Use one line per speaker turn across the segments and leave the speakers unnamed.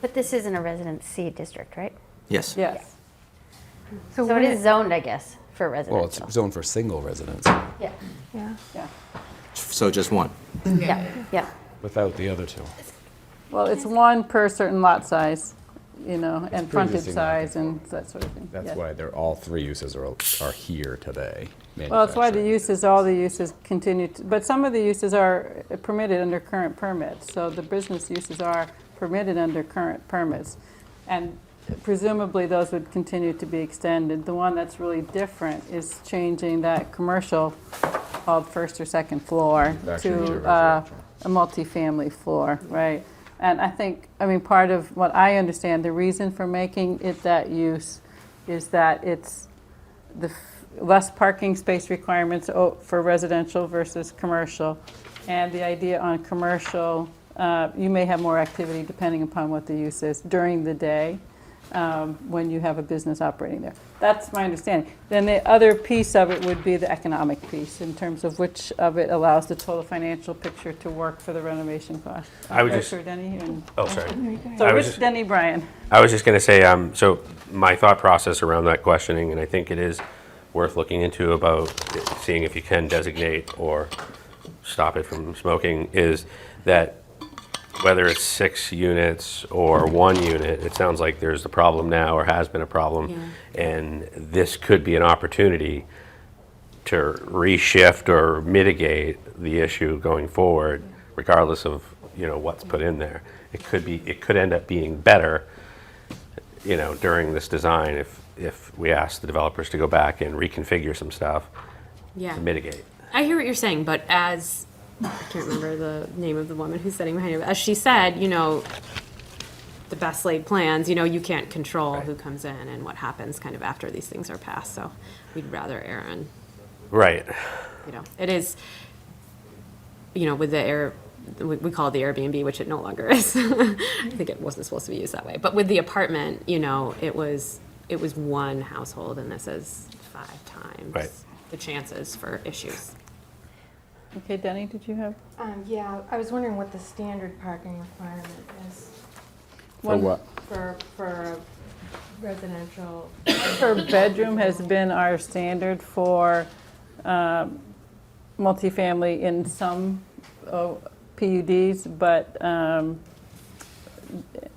But this isn't a residency district, right?
Yes.
Yes.
So it is zoned, I guess, for
Well, it's
residential.
zoned for single residence
Yeah,
Yeah.
So just one.
yeah, yeah.
without the other two.
Well, it's one per certain lot size, you know, and frontage
pre-existing
size and that sort of thing.
That's
yeah.
why they're, all three uses are, are here today.
Well, that's why the
manufacturing.
uses, all the uses continue, to- but some of the uses are permitted under current permits. So the business uses are permitted under current permits. And presumably, those would continue to be extended. The one that's really different is changing that commercial called first or second floor
Manufacturing to
to uh,
residential.
a multifamily floor, right? And I think, I mean, part of what I understand, the reason for making it that use is that it's the f- less parking space requirements o- for residential versus commercial. And the idea on commercial, uh, you may have more activity depending upon what the use is during the day um, when you have a business operating there. That's my understanding. Then the other piece of it would be the economic piece in terms of which of it allows the total financial picture to work for the renovation cost.
I would just-
Richard, Denny, and-
Oh, sorry.
So
I was
Rich,
just-
Denny, Brian.
I was just going to say, um, so my thought process around that questioning, and I think it is worth looking into about seeing if you can designate or stop it from smoking, is that whether it's six units or one unit, it sounds like there's a problem now or has been a problem. And this could be an opportunity to reshift or mitigate the issue going forward, regardless of, you know, what's put in there. It could be, it could end up being better, you know, during this design if, if we ask the developers to go back and reconfigure some stuff
Yeah.
to mitigate.
I hear what you're saying, but as I can't remember the name of the woman who's sitting behind you, but as she said, you know, the best laid plans, you know, you can't control who comes in and what happens kind of after these things are passed. So we'd rather err on,
Right.
you know, it is, you know, with the air, we, we call it the Airbnb, which it no longer is. I think it wasn't supposed to be used that way. But with the apartment, you know, it was, it was one household and this is five times
Right.
the chances for issues.
Okay, Denny, did you have?
Um, yeah, I was wondering what the standard parking requirement is
For what?
for, for a residential.
Per bedroom has been our standard for um, multifamily in some oh, PUDs, but um,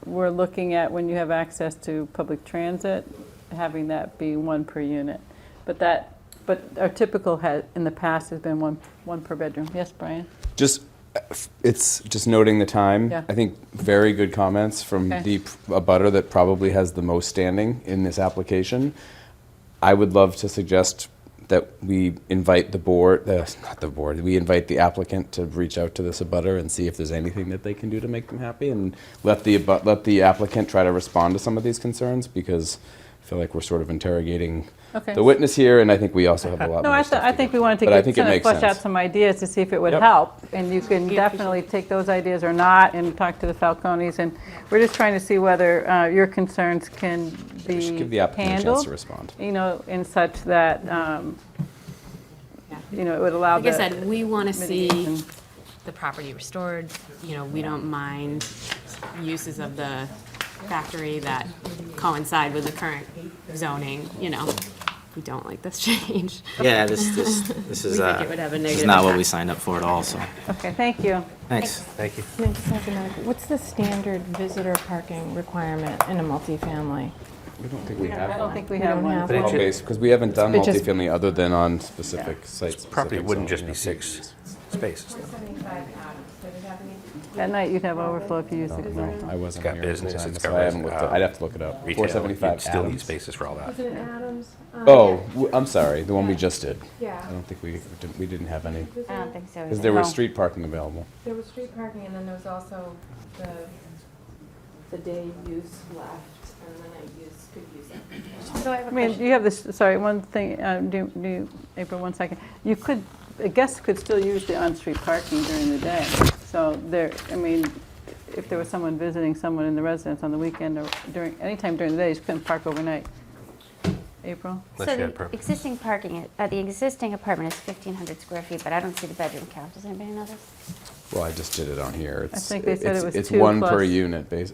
we're looking at when you have access to public transit, having that be one per unit. But that, but our typical has, in the past, has been one, one per bedroom. Yes, Brian?
Just, uh, f- it's just noting the time.
Yeah.
I think very good comments from
Okay.
the p- a butter that probably has the most standing in this application. I would love to suggest that we invite the board, uh, not the board, we invite the applicant to reach out to this abutter and see if there's anything that they can do to make them happy and let the, abu- let the applicant try to respond to some of these concerns because I feel like we're sort of interrogating
Okay.
the witness here and I think we also have a lot
No,
more
I, th-
stuff to
I
do.
think we wanted to
But I
get,
think it
kind of
makes
flesh out
sense.
some ideas to see if it would
Yep.
help. And you can definitely take those ideas or not and talk to the Falcones. And we're just trying to see whether uh, your concerns can be
We should give the applicant a chance to
handled,
respond.
you know, in such that, um,
Yeah.
you know, it would allow
Like I
the
said, we want to see
mitigation.
the property restored, you know, we don't mind uses of the factory that coincide with the current zoning, you know. We don't like this change.
Yeah, this, this, this is,
We think
uh,
it would have a
this is
negative
not what we
impact.
signed up for at all, so,
Okay, thank you.
thanks.
Thank you.
No, it's not gonna- What's the standard visitor parking requirement in a multifamily?
We don't think we
I
have
don't
one.
think we
We
have
don't have
one.
one.
it should-
because we haven't done
It just-
multifamily other than on specific sites.
Property
specific
wouldn't just
zoning
be
applications.
six spaces.
At night, you'd have overflow if you used it.
No, I wasn't
got
here at the
business,
time,
it's
so
got
I haven't looked
res-
up-
uh,
I'd have to look it up.
Retail,
Four seventy-five
you'd Still need
Adams.
spaces for all that.
it Adams? Um,
Oh, w- I'm sorry, the one we just did.
Yeah.
I don't think we, didn't- we didn't have any,
I don't think so.
because
either.
there was
No.
street parking available.
There was street parking and then there was also the, the day use left and the night use could use it.
So I have a
I mean,
question.
you have this, sorry, one thing, um, do, do, April, one second. You could, a guest could still use the on-street parking during the day. So there, I mean, if there was someone visiting someone in the residence on the weekend or during, anytime during the day, you just couldn't park overnight. April?
Unless
So
you had a
the
permit.
existing parking, uh, the existing apartment is 1,500 square feet, but I don't see the bedroom count. Does anybody know this?
Well, I just did it on here. It's-
think they said it
it's-
was
It's
two
one per
plus-
unit oh, base,